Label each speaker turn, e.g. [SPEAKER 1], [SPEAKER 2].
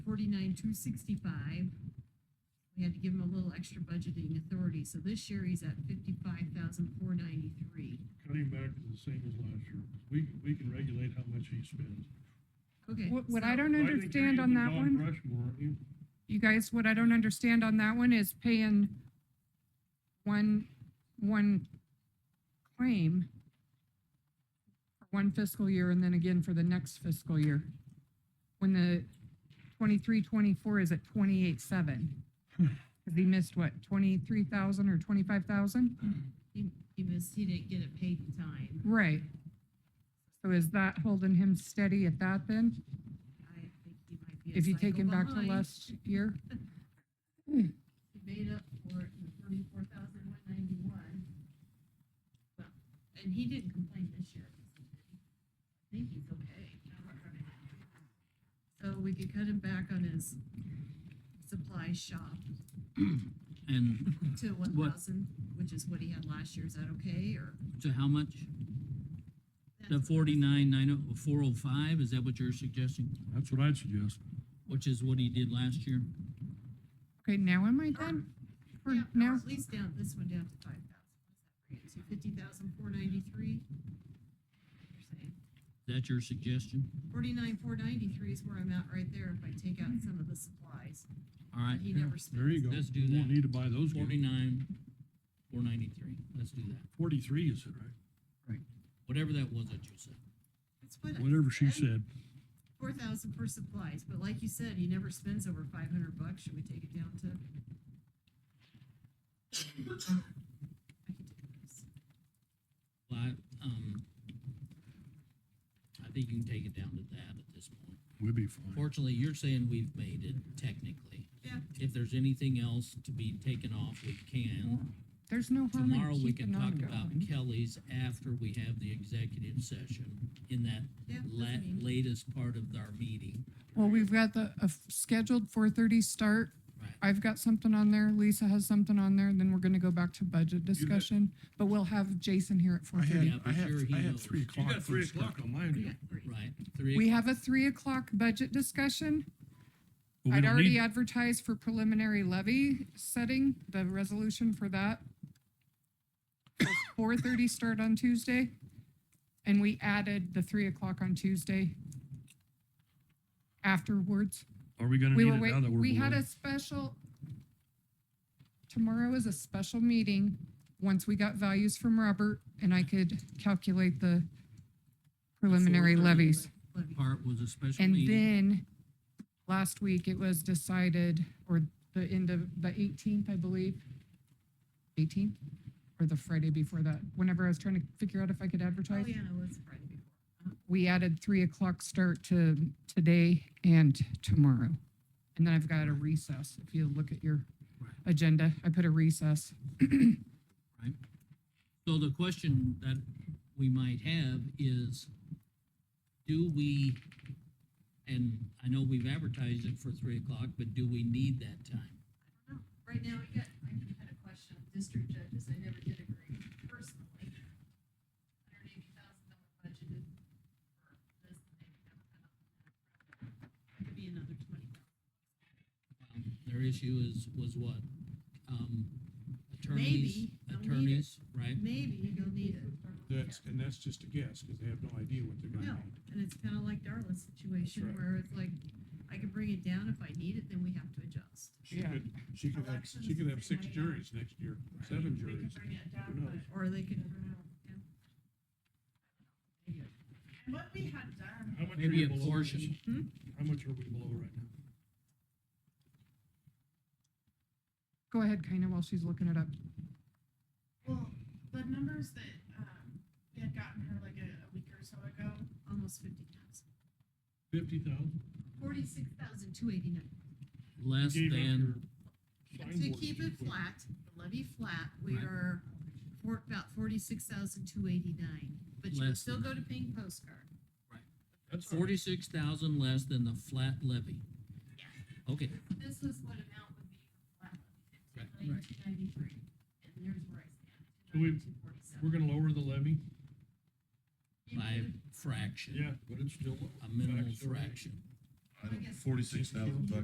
[SPEAKER 1] forty-nine, two sixty-five. We had to give him a little extra budgeting authority, so this year he's at fifty-five thousand, four ninety-three.
[SPEAKER 2] Cutting back is the same as last year. We, we can regulate how much he spends.
[SPEAKER 1] Okay.
[SPEAKER 3] What, what I
[SPEAKER 1] so-
[SPEAKER 3] don't
[SPEAKER 2] I think
[SPEAKER 3] understand
[SPEAKER 2] you're
[SPEAKER 3] on
[SPEAKER 2] using
[SPEAKER 3] that
[SPEAKER 2] Don
[SPEAKER 3] one,
[SPEAKER 2] Rushmore, you-
[SPEAKER 3] you guys, what I don't understand on that one is paying one, one claim for one fiscal year and then again for the next fiscal year. When the twenty-three, twenty-four is at twenty-eight, seven. Cause he missed what, twenty-three thousand or twenty-five thousand?
[SPEAKER 1] He, he missed, he didn't get it paid in time.
[SPEAKER 3] Right. So is that holding him steady at that then?
[SPEAKER 1] I think he might be a
[SPEAKER 3] If you take
[SPEAKER 1] cycle
[SPEAKER 3] him back to
[SPEAKER 1] behind.
[SPEAKER 3] last year?
[SPEAKER 1] He made up for it in the thirty-four thousand, one ninety-one. And he didn't complain this year. I think he's okay. So we could cut him back on his supply shop
[SPEAKER 4] And
[SPEAKER 1] to one
[SPEAKER 4] What-
[SPEAKER 1] thousand, which is what he had last year. Is that okay, or?
[SPEAKER 4] to how much? The forty-nine, nine oh, four oh five, is that what you're suggesting?
[SPEAKER 2] That's what I'd suggest.
[SPEAKER 4] Which is what he did last year?
[SPEAKER 3] Okay, now am I done? For
[SPEAKER 1] Yeah, or
[SPEAKER 3] now,
[SPEAKER 1] at least down, this one down to five thousand. So fifty thousand, four ninety-three?
[SPEAKER 4] Is that your suggestion?
[SPEAKER 1] Forty-nine, four ninety-three is where I'm at right there if I take out some of the supplies.
[SPEAKER 4] All right,
[SPEAKER 1] that He never spent.
[SPEAKER 2] There you go.
[SPEAKER 4] Let's do
[SPEAKER 2] You won't
[SPEAKER 4] that.
[SPEAKER 2] Need to buy those. again.
[SPEAKER 4] forty-nine, four ninety-three, let's do that.
[SPEAKER 2] Forty-three, is it right?
[SPEAKER 4] Whatever that was that you said.
[SPEAKER 1] That's what I-
[SPEAKER 2] Whatever she
[SPEAKER 1] and
[SPEAKER 2] said.
[SPEAKER 1] Four thousand for supplies, but like you said, he never spends over five hundred bucks. Should we take it down to? I can do this.
[SPEAKER 4] Well, I, um, I think you can take it down to that at this point.
[SPEAKER 2] We'd be fine.
[SPEAKER 4] Fortunately, you're saying we've made it technically.
[SPEAKER 1] Yeah.
[SPEAKER 4] If there's anything else to be taken off, we can.
[SPEAKER 3] there's no
[SPEAKER 1] Oh,
[SPEAKER 3] harm
[SPEAKER 4] Tomorrow,
[SPEAKER 3] in
[SPEAKER 4] we can
[SPEAKER 3] keeping
[SPEAKER 4] talk
[SPEAKER 3] on
[SPEAKER 4] about
[SPEAKER 3] going.
[SPEAKER 4] Kelly's after we have the executive session in that
[SPEAKER 1] Yeah, that's
[SPEAKER 4] la-
[SPEAKER 1] me.
[SPEAKER 4] latest part of our meeting.
[SPEAKER 3] Well, we've got the, a f- scheduled four thirty start.
[SPEAKER 4] Right.
[SPEAKER 3] I've got something on there, Lisa has something on there, and then we're gonna go back to budget discussion, but we'll have Jason here at four
[SPEAKER 5] I
[SPEAKER 3] thirty.
[SPEAKER 4] Yeah,
[SPEAKER 5] had,
[SPEAKER 4] for
[SPEAKER 5] I had,
[SPEAKER 4] sure he
[SPEAKER 5] I had
[SPEAKER 4] knows.
[SPEAKER 5] three
[SPEAKER 2] You
[SPEAKER 5] o'clock.
[SPEAKER 2] got three
[SPEAKER 5] first
[SPEAKER 2] o'clock
[SPEAKER 5] time.
[SPEAKER 2] on my
[SPEAKER 1] We
[SPEAKER 2] end.
[SPEAKER 1] got three.
[SPEAKER 4] Right, three.
[SPEAKER 3] We
[SPEAKER 4] o'clock.
[SPEAKER 3] have a three o'clock budget discussion.
[SPEAKER 2] But we
[SPEAKER 3] I'd
[SPEAKER 2] don't
[SPEAKER 3] already
[SPEAKER 2] need-
[SPEAKER 3] advertised for preliminary levy setting, the resolution for that. Four thirty start on Tuesday, and we added the three o'clock on Tuesday afterwards.
[SPEAKER 2] Are we gonna
[SPEAKER 3] We
[SPEAKER 2] need
[SPEAKER 3] were
[SPEAKER 2] it now
[SPEAKER 3] waiting,
[SPEAKER 2] that we're
[SPEAKER 3] we had
[SPEAKER 2] below?
[SPEAKER 3] a special, tomorrow is a special meeting, once we got values from Robert, and I could calculate the preliminary levies.
[SPEAKER 1] Levy.
[SPEAKER 4] Part was a special
[SPEAKER 3] And
[SPEAKER 4] meeting.
[SPEAKER 3] then, last week, it was decided, or the end of, the eighteenth, I believe, eighteenth, or the Friday before that, whenever I was trying to figure out if I could
[SPEAKER 1] Oh,
[SPEAKER 3] advertise,
[SPEAKER 1] yeah, no, it's Friday before.
[SPEAKER 3] we added three o'clock start to today and tomorrow. And then I've got a recess, if you look at your
[SPEAKER 4] Right.
[SPEAKER 3] agenda, I put a recess.
[SPEAKER 4] So the question that we might have is, do we, and I know we've advertised it for three o'clock, but do we need that time?
[SPEAKER 1] No, Right now, we got, I had a question on district judges, I never did agree personally. Hundred eighty thousand dollar budgeted for this, and they never got up. It could be another twenty thousand.
[SPEAKER 4] Um, Their issue is, was what? Um, Attorneys,
[SPEAKER 1] Maybe they'll need it.
[SPEAKER 4] attorneys, right?
[SPEAKER 1] Maybe you'll need it.
[SPEAKER 6] That's, and that's just a guess, because they have no idea what they're
[SPEAKER 1] No,
[SPEAKER 6] gonna need.
[SPEAKER 1] and it's kind of like Darla's situation
[SPEAKER 6] right.
[SPEAKER 1] where it's like, I can bring it down if I need it, then we have to adjust.
[SPEAKER 6] She
[SPEAKER 3] Yeah.
[SPEAKER 6] could, she could have, she could have six juries next year, seven
[SPEAKER 1] We can
[SPEAKER 6] juries.
[SPEAKER 1] bring it down,
[SPEAKER 6] Who
[SPEAKER 1] but-
[SPEAKER 6] knows?
[SPEAKER 1] Or they can. bring it up, yeah. Anyway.
[SPEAKER 7] What we had done,
[SPEAKER 2] How much are
[SPEAKER 4] Maybe
[SPEAKER 2] you
[SPEAKER 4] a
[SPEAKER 2] below this-
[SPEAKER 4] portion.
[SPEAKER 2] How much are we below right now?
[SPEAKER 3] Go ahead, Kaina, while she's looking it up.
[SPEAKER 7] well, the numbers that, um, we had gotten her like a, a week or so ago,
[SPEAKER 1] Almost fifty thousand.
[SPEAKER 2] Fifty thousand?
[SPEAKER 1] Forty-six thousand, two eighty-nine.
[SPEAKER 4] Less than,
[SPEAKER 1] To keep it flat, the levy flat, we
[SPEAKER 4] Right.
[SPEAKER 1] are for about forty-six thousand two eighty-nine, but you can
[SPEAKER 4] Less
[SPEAKER 1] still
[SPEAKER 4] than
[SPEAKER 1] go to paying postcard.
[SPEAKER 2] That's forty.
[SPEAKER 4] forty-six thousand less than the flat levy. Okay,
[SPEAKER 1] This is what amount would be for flat
[SPEAKER 4] Right.
[SPEAKER 1] levy, nineteen ninety-three, and there's where I stand.
[SPEAKER 2] Do we-
[SPEAKER 1] 292.47.
[SPEAKER 2] We're gonna lower the levy?
[SPEAKER 1] You
[SPEAKER 4] by
[SPEAKER 1] could-
[SPEAKER 4] fraction,
[SPEAKER 2] but it's still.
[SPEAKER 4] a minimal
[SPEAKER 2] Fraction.
[SPEAKER 4] fraction.
[SPEAKER 5] I don't-
[SPEAKER 1] I guess-
[SPEAKER 5] Forty-six thousand bucks.